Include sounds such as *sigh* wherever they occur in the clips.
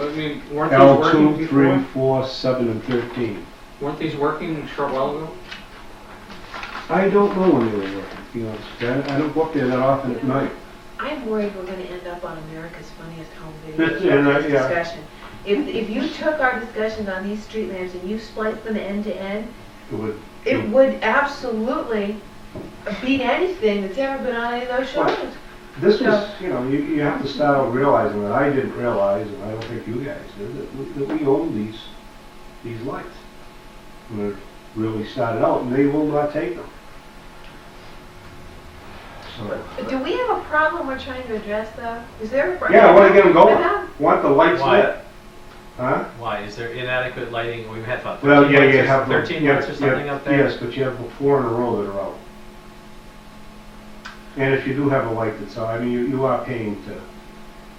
I mean, weren't these L working two, three, before? four, seven, and thirteen. Weren't these working short while ago? I don't know when they were working, to be honest with you. I I don't go up there that often at night. I'm worried we're gonna end up on America's Funniest Home That's- and I- Videos yeah. discussion. If, if you took our discussions on these street lamps and you spliced them end to end, It would, it would absolutely beat anything that's ever been on any of those shows. this was, Yeah. you know, you, you have to start out realizing that I didn't realize, and I don't think you guys did, that we, that we own these, these lights. When it really started out, and they will not take them. So, But do we have a problem we're trying to address though? Is there a problem? yeah, I wanna get them I going. know. Want the lights Why? lit. Huh? Why, is there inadequate lighting? We've had about Well, 13 yeah, you lights have. or- the- 13 yeah, lights or yeah, something up there? Yes, but you have four in a row that are out. And if you do have a light that's out, I mean, you, you are paying to,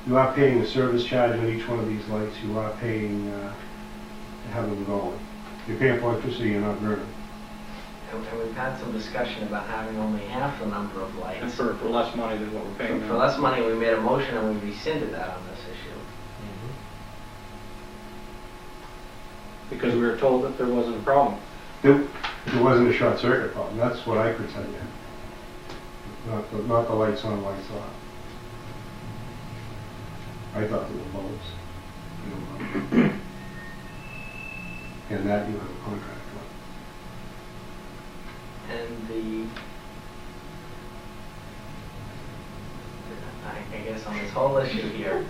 you are paying a service charge on each one of these lights, you are paying, uh, to have them going. You're paying for electricity, you're not burning. And and we've had some discussion about having only half the number of And lights. for, for less money than what we're For paying for now. less money, we made a motion and we rescinded that on this issue. Mhm. Because we were told that there wasn't a problem. There, there wasn't a short circuit problem, that's what I could tell you. Not, the- not the lights on, lights off. I thought they were bulbs. you know. And that you have a contract with. And the, I I guess on this whole issue here,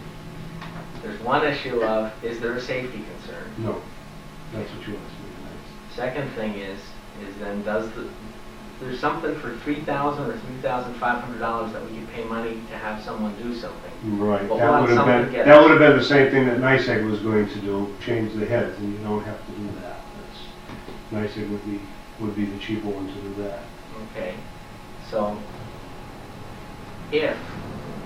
there's one issue of, is there a safety concern? No, that's what you asked me tonight. Second thing is, is then does the, there's something for three thousand or three thousand five hundred dollars that we could pay money to have someone do something. Right, But that would once have someone been, gets- that would have been the same thing that NICEAG was going to do, change the heads, and you don't have to do that. That's NICEAG would be, would be the cheaper one to do that. Okay, so if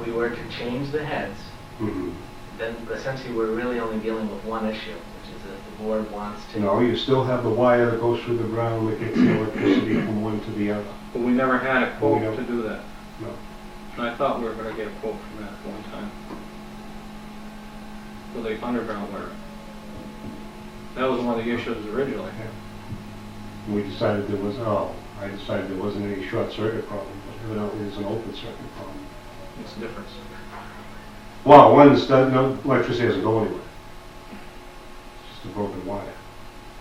we were to change the heads, Mhm. then essentially we're really only dealing with one issue, which is that the board wants to. No, you still have the wire that goes through the ground that gets the electricity from one to the other. But we never had a quote We don't- to do that. No. And I thought we were gonna get a quote from that one time. For the underground wire. That was one of the issues originally. And we decided there was, oh, I decided there wasn't any short circuit problem, but evidently there's an open circuit problem. What's the difference? Well, one's, done- no, electricity doesn't go anywhere. It's just a broken wire.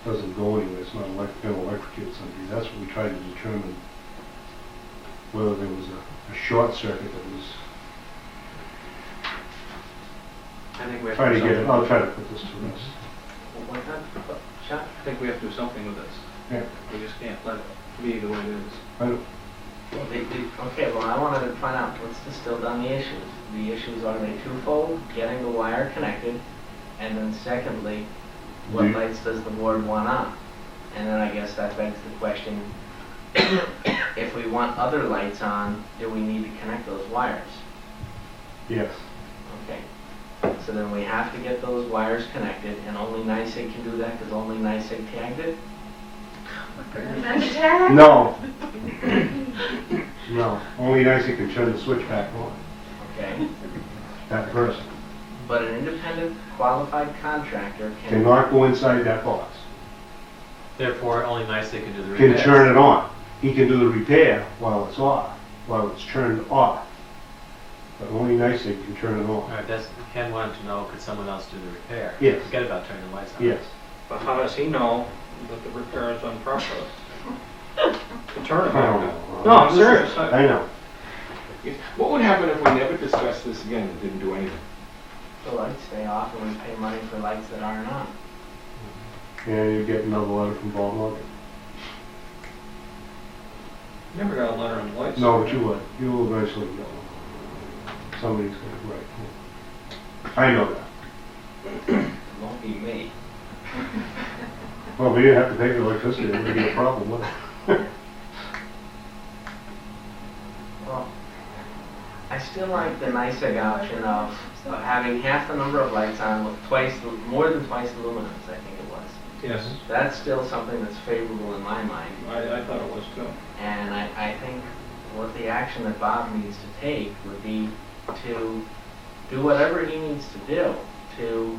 Doesn't go anywhere, it's not elect, gonna electrocute somebody. That's what we tried to determine, whether there was a, a short circuit that was, I think we have try to do get, it- something. Oh. I'll try to put this to rest. Why not? Chuck, I think we have to do something with this. Yeah. We just can't let it be the way it is. I don't- they- they- okay, well, I wanted to find out what's distilled on the issues. The issues are they twofold, getting the wire connected, and then secondly, what Do- lights does the board want on? And then I guess that begs the question, *coughs* if we want other lights on, do we need to connect those wires? Yes. Okay, so then we have to get those wires connected, and only NICEAG can do that, because only NICEAG tagged it? *laughs* Remember that? No. *coughs* No, only Nancy can turn the switch back on, Okay, that person. but an independent qualified contractor can, Cannot go inside that box, Therefore, only nice they can do the can repairs. turn it on. He can do the repair while it's off, while it's turned off. But only Nancy can turn it All on. right, that's, Ken wanted to know, could someone else do the repair? Yes. Forget about turning the lights on. Yes, But how does he know that the repair is done properly? The turnaround. Oh. No, I'm serious. I- I know. What would happen if we never discussed this again and didn't do anything? the lights stay off, and we pay money for lights that aren't on. And you get another letter from Bob Morgan. Never got a letter on the lights. No, but you would, you will eventually get one. Somebody's gonna, right. I know that. It won't be me. Well, we didn't have to pay for electricity, it would be a problem, would it? Well, I still like the NICEAG option of, of having half the number of lights on with twice, the- more than twice the luminance, I think it was. Yes, That's still something that's favorable in my mind. I, I thought it was too. And I, I think what the action that Bob needs to take would be to do whatever he needs to do to